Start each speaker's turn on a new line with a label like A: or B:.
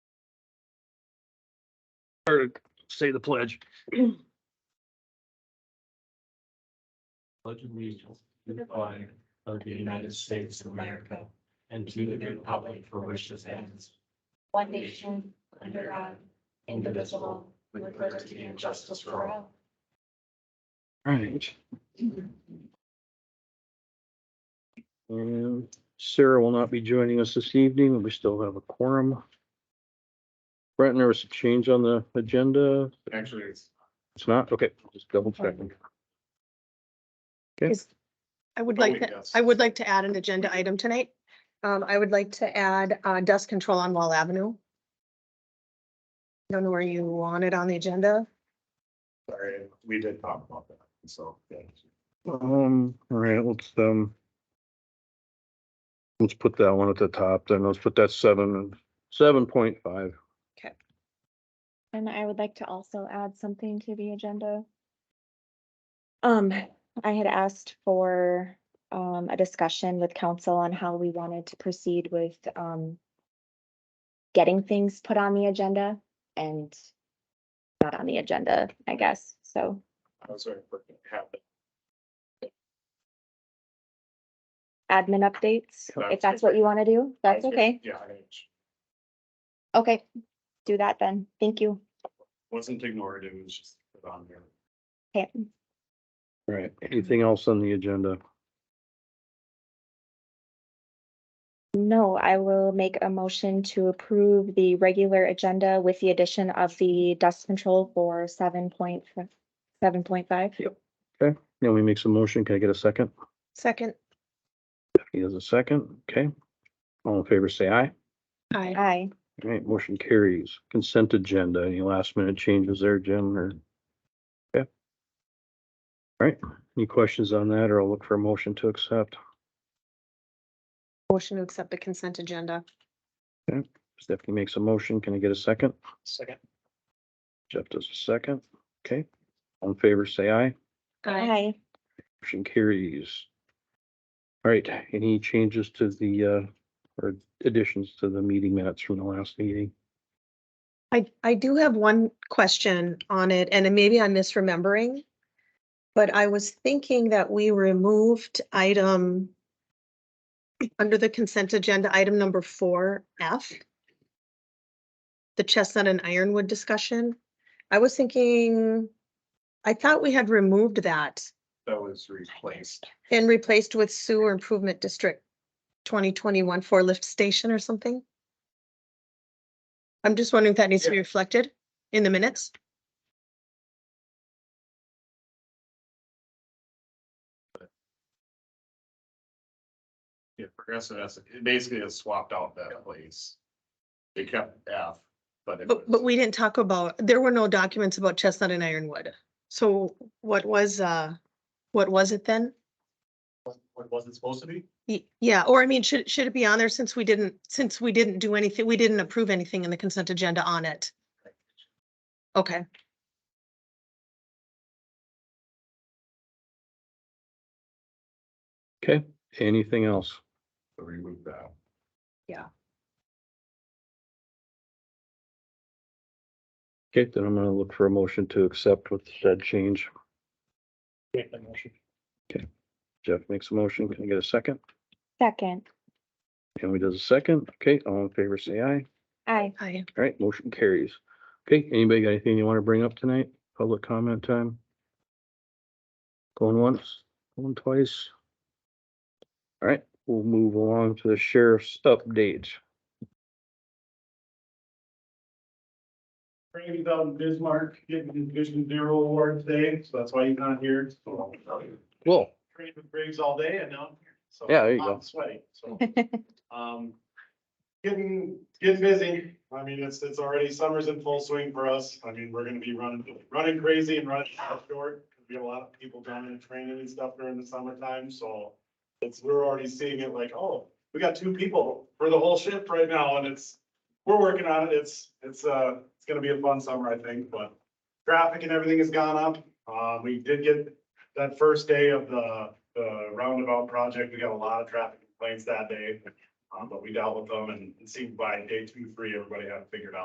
A: say the pledge.
B: pledge allegiance to the flag of the United States of America and to the republic for which it stands,
C: one nation, under God, indivisible, with liberty and justice for all.
A: Right. Um, Sarah will not be joining us this evening. We still have a quorum. Brent, there was a change on the agenda.
D: Actually, it's
A: It's not, okay, just double checking.
E: I would
D: Oh,
E: like, to.
D: yes.
E: I would like to add an agenda item tonight. Um, I would like to add, uh, dust control on Wall Avenue. Don't know where you want it on the agenda.
D: sorry, we did talk about that, so. yeah.
A: Um, all right, let's, um. Let's put that one at the top, then let's put that seven, seven point five.
F: And I would like to also add something to the agenda. Um, I had asked for, um, a discussion with council on how we wanted to proceed with, um, getting things put on the agenda and not on the agenda, I guess, so
D: I was sorry for having.
F: admin updates, if
D: That's
F: that's what you want to do, that's okay,
D: Yeah, I
F: okay, do that then, thank you.
D: wasn't ignored, it was just put on there.
F: Okay,
A: All right, anything else on the agenda?
F: No, I will make a motion to approve the regular agenda with the addition of the dust control for seven point, seven point five.
A: Now we make some motion. Can I get a second?
E: Second,
A: He has a second, okay. All in favor, say aye.
E: I,
F: Aye.
A: All right, motion carries. Consent agenda, any last minute changes there, Jim, or? Yeah. All right, any questions on that, or I'll look for a motion to accept.
E: motion to accept the consent agenda.
A: Stephanie makes a motion, can I get a second?
B: second,
A: Jeff does a second, okay. All in favor, say aye.
E: I,
F: Aye.
A: Motion carries. All right, any changes to the, uh, or additions to the meeting minutes from the last meeting?
E: I, I do have one question on it, and maybe I'm misremembering. But I was thinking that we removed item under the consent agenda, item number four F. The chestnut and ironwood discussion. I was thinking, I thought we had removed that
D: That was replaced.
E: and replaced with sewer improvement district twenty twenty-one for lift station or something. I'm just wondering if that needs to be reflected in the minutes.
D: Yeah, Progressive has, it basically has swapped out that place. They kept F, but it was.
E: But, but we didn't talk about, there were no documents about Chestnut and Ironwood. So what was, uh, what was it then?
D: What was it supposed to be?
E: Y- Yeah, or I mean, should, should it be on there since we didn't, since we didn't do anything, we didn't approve anything in the consent agenda on it? Okay,
A: Okay, anything else?
D: So Remove that.
A: Okay, then I'm gonna look for a motion to accept with said change.
B: make the motion.
A: Jeff makes a motion. Can I get a second?
F: Second.
A: And we does a second. Okay, all in favor, say aye.
F: Aye.
E: I,
A: All right, motion carries. Okay, anybody got anything you want to bring up tonight? Public comment time? Going once, going twice? All right, we'll move along to the sheriff's update.
G: Randy's out in um, Bismarck getting his Vision Zero Award today, so that's why he's not here. So,
A: Cool.
G: Trained with Briggs all day and now I'm here. So,
A: Yeah, there you go.
G: I'm sweaty, so. Um, getting, getting busy. I mean, it's, it's already, summer's in full swing for us. I mean, we're gonna be running, running crazy and running out short. 'cause We have a lot of people down in training and stuff during the summertime, so it's, we're already seeing it like, oh, we got two people for the whole shift right now and it's, we're working on it. It's, it's, uh, it's gonna be a fun summer, I think, but traffic and everything has gone up. Uh, we did get that first day of the, the roundabout project. We got a lot of traffic complaints that day. Um, but we dealt with them and it seemed by day two, three, everybody had it figured out.